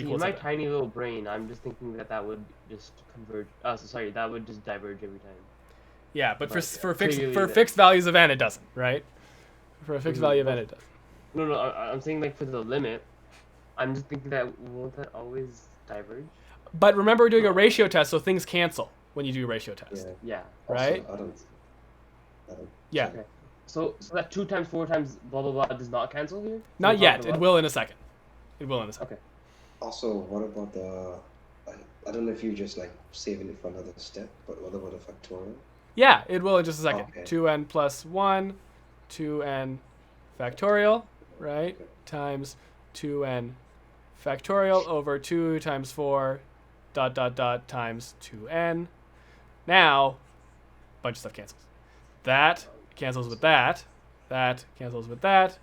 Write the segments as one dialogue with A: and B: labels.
A: In
B: equals
A: my
B: it.
A: tiny little brain, I'm just thinking that that would just converge. Uh, so- sorry, that would just diverge every time.
C: Yeah, but for
A: Right,
C: s-
A: yeah.
C: for fixed
A: Clearly
C: for
A: the-
C: fixed values of n, it doesn't, right? For a fixed
A: Mhm.
C: value of n, it doesn't.
A: No, no, I, I'm saying like for the limit. I'm just thinking that won't that always diverge?
C: But remember, we're doing a ratio test, so things cancel when you do a ratio test.
D: Yeah.
A: Yeah.
C: Right?
D: Also, I don't. I don't
C: Yeah.
D: check.
A: So so that two times four times blah blah blah does not cancel here.
C: Not
A: Blah,
C: yet.
A: blah,
C: It
A: blah.
C: will in a second. It will in a second.
A: Okay.
D: Also, what about the? I, I don't know if you're just like saving it for another step, but what about the factorial?
C: Yeah, it will in just a second.
D: Okay.
C: 2n plus 1, 2n factorial, right?
D: Okay.
C: Times 2n factorial over 2 times 4 dot dot dot times 2n. Now, bunch of stuff cancels. That cancels with that. That cancels with that.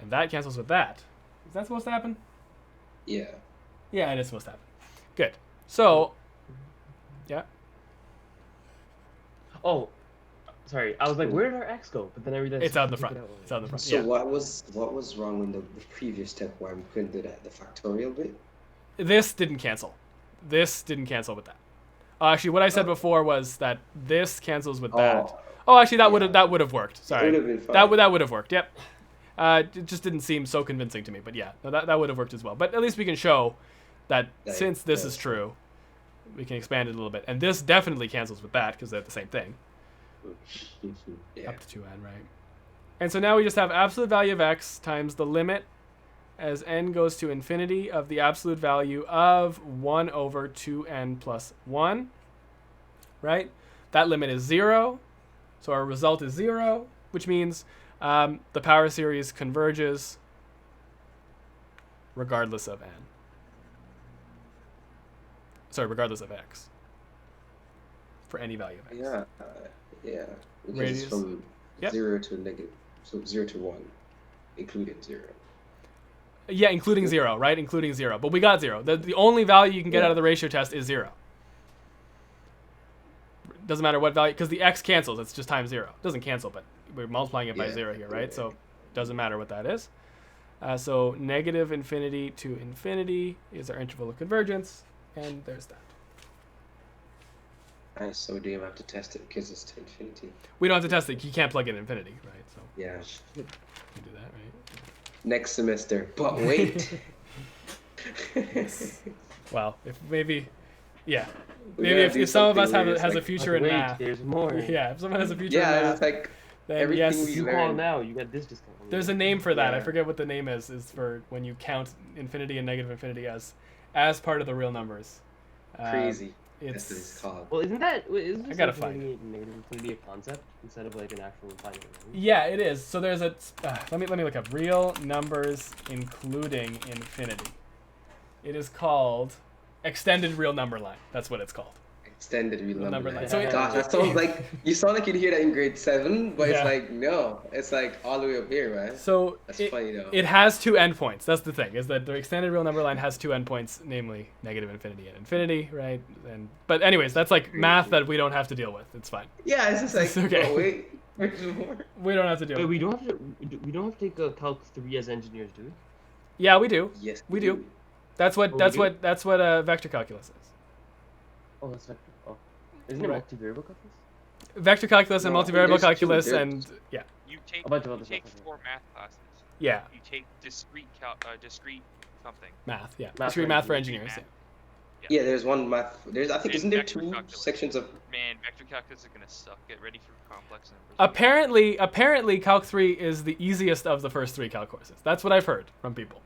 C: And that cancels with that. Is that supposed to happen?
D: Yeah.
C: Yeah, it is supposed to happen. Good. So, yeah.
A: Oh, sorry. I was like, where did our x go? But then I realized
C: It's out in the
A: we took
C: front.
A: it out.
C: It's out in the front.
D: So
C: Yeah.
D: what was what was wrong in the, the previous step where we couldn't do that? The factorial bit.
C: this didn't cancel. This didn't cancel with that. Uh, actually, what I said before was that this cancels with that.
D: Oh.
C: Oh, actually, that would
D: Yeah.
C: have that would have worked. Sorry,
D: would've been
C: that
D: fine.
C: would that would have worked. Yep. Uh, it just didn't seem so convincing to me, but yeah, no, that that would have worked as well. But at least we can show that
D: That it
C: since this is
D: does.
C: true, we can expand it a little bit, and this definitely cancels with that because they're the same thing.
D: Oh. Yeah.
C: up to 2n, right? And so now we just have absolute value of x times the limit as n goes to infinity of the absolute value of 1 over 2n plus 1, right? That limit is 0, so our result is 0, which means um, the power series converges regardless of n. Sorry, regardless of x. For any value of x.
D: Yeah. uh, Yeah. Because
C: Radius.
D: it's from
C: Yep.
D: zero to negative, so zero to one, including zero.
C: Yeah, including zero, right? Including zero. But we got zero. The, the only value you can get
D: Yeah.
C: out of the ratio test is zero. Doesn't matter what value, because the x cancels. It's just times zero. Doesn't cancel, but we're multiplying it by
D: Yeah.
C: zero here, right? So doesn't matter what that is. Uh, so negative infinity to infinity is our interval of convergence, and there's that.
D: Nice. So we do have to test it because it's to infinity.
C: We don't have to test it. You can't plug in infinity, right? So
D: Yeah.
C: we can do that, right?
D: Next semester. But wait.
C: Well, if maybe, yeah,
D: We
C: maybe
D: gotta
C: if,
D: do
C: if some of us
D: something
C: have
D: where
C: a,
D: it's
C: has a
D: like,
C: future
A: Like,
C: in
A: wait,
C: math,
A: there's more.
C: yeah, if someone has a future in
D: Yeah,
C: math,
D: it's like
C: then
D: everything
C: yes,
D: we
A: You call
D: Learn.
A: now, you get this discount.
C: There's a name for that. I
D: Yeah.
C: forget what the name is. Is for when you count infinity and negative infinity as as part of the real numbers. Um,
D: crazy. That's what it's
C: It's
D: called.
A: Well, isn't that wait, isn't this
C: gotta
A: like
C: find it.
A: infinity- negative infinity a concept instead of like an actual finite? right?
C: yeah, it is. So there's a uh, let me let me look up real numbers including infinity. It is called extended real number line. That's what it's called.
D: Extended real
C: Real number
D: number
C: line.
D: line.
A: So it-
D: Gosh, that sounds like you sound like you'd hear that in grade seven, but
C: Yeah.
D: it's like no, it's like all the way up here, man.
C: So
D: That's
C: it,
D: funny though.
C: it has two endpoints. That's the thing is that the extended real number line has two endpoints, namely negative infinity and infinity, right? And but anyways, that's like math that we don't have to deal with. It's fine.
D: yeah, it's just like
C: It's okay.
D: but wait, there's more.
C: We don't have to deal.
A: Wait,
C: with it.
A: we don't have to. We don't have to take a calc three as engineers, do we?
C: Yeah, we do.
D: Yes,
C: We do. That's what
A: Oh, we
C: that's
A: do?
C: what that's what uh, vector calculus is.
A: Oh, that's vector. Oh, isn't it
C: Right.
A: multivariable calculus?
C: Vector calculus and
D: No, I think
C: multivariable
D: there's two
C: calculus
D: different-
C: and yeah,
E: You take
A: A bunch of
E: you
A: other
E: take
A: stuff.
E: four math classes.
C: yeah,
E: You take discrete cal- uh, discrete something.
C: math, yeah.
A: Math
C: Math should be
A: for
C: math for
E: engineering.
C: engineers. yeah.
D: Yeah, there's one math. There's I think
E: There's
D: isn't there
E: vector
D: two
E: calculus.
D: sections of
E: Man, vector calculus is gonna suck. Get ready for complex numbers.
C: Apparently, apparently calc 3 is the easiest of the first 3 calc courses. That's what I've heard from people.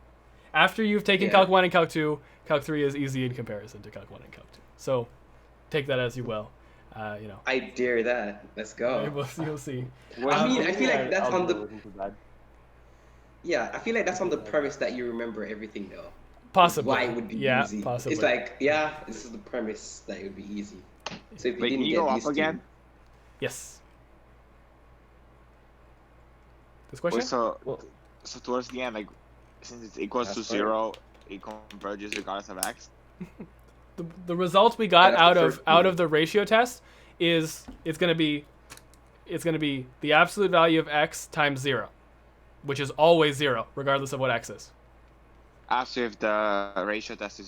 C: After you've taken
D: Yeah.
C: calc 1 and calc 2, calc 3 is easy in comparison to calc 1 and calc 2. So, take that as you will. Uh, you know,
D: I dare that. Let's go.
C: we'll, you'll see.
D: I mean, I feel like that's on the-
A: Algorithm for that.
D: Yeah, I feel like that's on the premise that you remember everything though.
C: Possibly.
D: Why it would be
C: yeah,
D: easy?
C: possibly.
D: It's like yeah, this is the premise that it would be easy. So if you
F: Wait,
D: didn't
F: can you
D: get
F: go up
D: these two-
F: again?
C: yes. This
F: Wait,
C: question?
F: so
A: Well-
F: so towards the end, like since it's equals to
D: That's fine.
F: zero, it converges regardless of x.
C: the, the result we got
D: Yeah,
C: out
D: that's the
C: of
D: first
C: out
D: one.
C: of the ratio test is it's going to be it's going to be the absolute value of x times 0 which is always 0 regardless of what x is
F: After if the ratio test is